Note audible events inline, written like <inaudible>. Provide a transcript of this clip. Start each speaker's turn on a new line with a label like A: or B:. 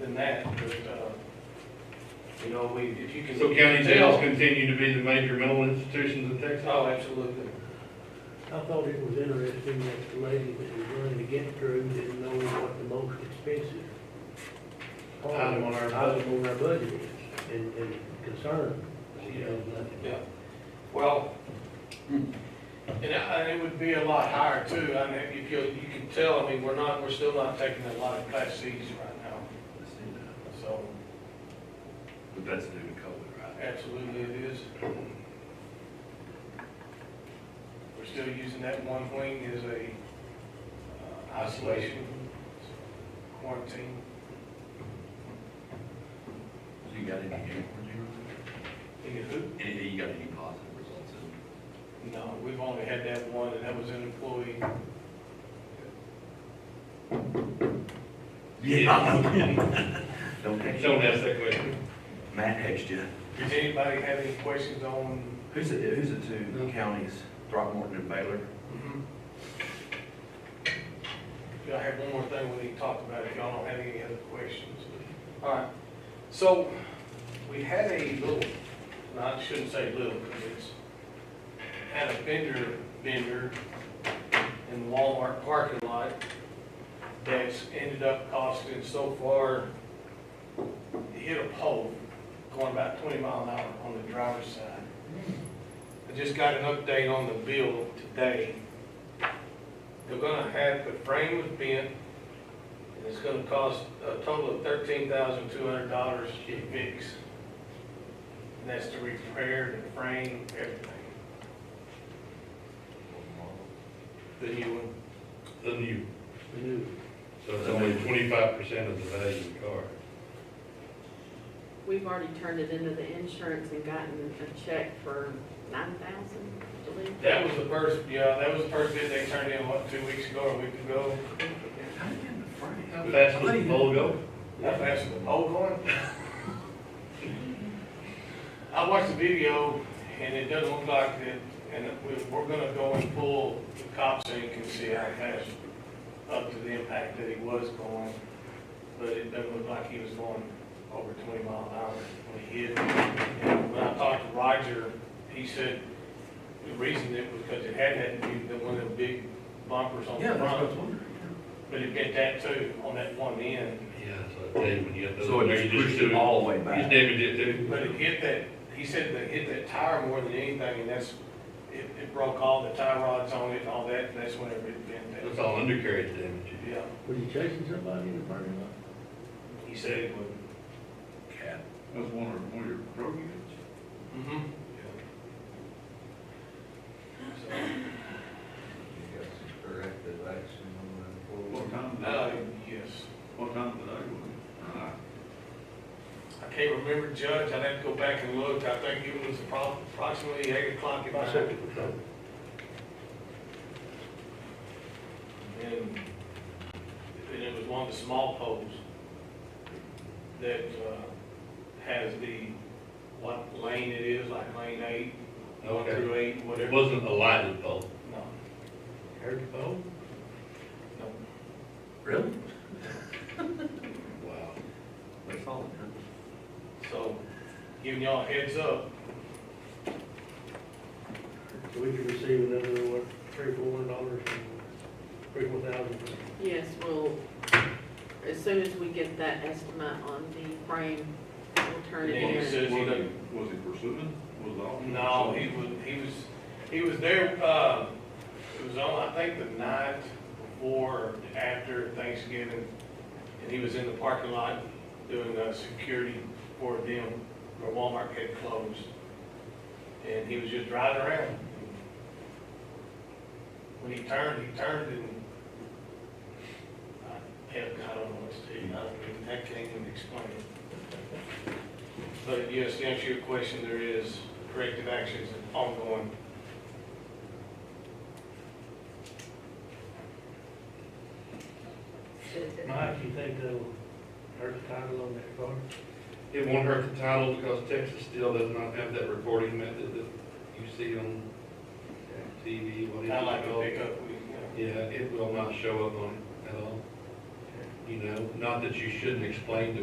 A: than that, but, uh, you know, we, if you can.
B: So county jails continue to be the major mental institutions in Texas?
A: Oh, absolutely.
C: I thought it was interesting that the lady that was running to get through didn't know what the most expensive
B: Item on our budget.
C: item on our budget is, and, and concern, she knows nothing.
A: Yeah, well, and I- and it would be a lot higher too, I mean, you could, you could tell, I mean, we're not, we're still not taking a lot of class Cs right now, so
B: But that's due to COVID, right?
A: absolutely it is. We're still using that one wing as a uh, isolation quarantine.
D: So you got any game for you?
A: You know, who-
D: Anything, you got any positive results in?
A: No, we've only had that one, and that was an employee.
D: Yeah. <laughs> Don't text you.
B: Don't ask that question.
D: Matt texted you.
A: Does anybody have any questions on?
D: Who's it, who's the two counties, Throckmorton and
A: Yeah,
D: Baylor?
A: Mm-hmm. I have one more thing we need to talk about, if y'all don't have any other questions. All right, so we had a little, and I shouldn't say little, because it's, had a vendor, vendor in Walmart parking lot that's ended up costing so far, it hit a pole going about twenty mile an hour on the driver's side. I just got an update on the bill today. They're gonna have, the frame was bent, and it's gonna cost a total of thirteen thousand two hundred dollars to fix. And that's to repair the frame, everything, the new one.
B: The new,
C: We knew.
B: so it's only twenty-five percent of the value of the car.
E: We've already turned it into the insurance and gotten a check for nine thousand, I believe.
A: That was the first, yeah, that was the first bid they turned in, what, two weeks ago or a week ago?
D: How did you get the frame?
B: That's the logo.
A: That fast with the pole going? I watched the video, and it doesn't look like it, and we- we're gonna go and pull the cops so you can see how fast up to the impact that he was going, but it doesn't look like he was going over twenty mile an hour when he hit. And when I talked to Roger, he said the reason it was because it had had to be the one of the big bumpers on the front,
D: wondering.
A: but it hit that too on that one end.
B: Yeah, so I tell you, when you get those.
D: So it just
B: you
D: pushed
B: do
D: it all the way
B: You
D: back.
B: damaged it too.
A: But it hit that, he said that it hit that tire more than anything, and that's, it, it broke all the tie rods on it and all that, and that's whenever it bent
B: That's
A: that.
B: all undercarriage damage.
A: Yeah,
C: Were you chasing somebody in the parking lot?
A: he said it would.
D: Cat.
F: That's one of, one of your road units.
A: Mm-hmm.
G: corrective action on that.
F: What time
A: So,
F: did
A: uh,
F: I,
A: yes,
F: what time did I go in? Uh,
A: I can't remember, Judge, I'd have to go back and look, I think it was appro- approximately eight o'clock at
C: My
A: night.
C: second patrol.
A: And, and it was one of the small poles that, uh, has the, what lane it is, like lane eight, one
B: Okay.
A: through eight,
B: It
A: whatever.
B: wasn't a lighted bulb.
A: No,
C: Heard the phone?
A: no.
D: Really?
B: Wow.
D: That's all. huh?
A: So, giving y'all a heads up,
C: So we could receive another, what, three, four hundred dollars and three, four thousand.
E: Yes, well, as soon as we get that estimate on the frame, we'll turn it
A: Yeah, you
E: in.
A: said- Does he
F: Was
A: know-
F: he, was he pursuing? Was the officer?
A: no, he
F: pursuing?
A: was, he was, he was there, uh, it was on, I think, the night before, or after Thanksgiving, and he was in the parking lot doing, uh, security for them, where Walmart had closed. And he was just driving around. When he turned, he turned and, I, hell, I don't know what to do, I don't even, I can't even explain it. But yes, to answer your question, there is corrective actions ongoing.
C: Mike, you think that'll hurt the title on that car?
B: It won't hurt the title because Texas still does not have that recording method that you see on uh, TV,
A: I
B: whatever. it's
A: like to
B: called.
A: pick up, we, you
B: Yeah, it will not show up on it at all. You know, not that you shouldn't explain to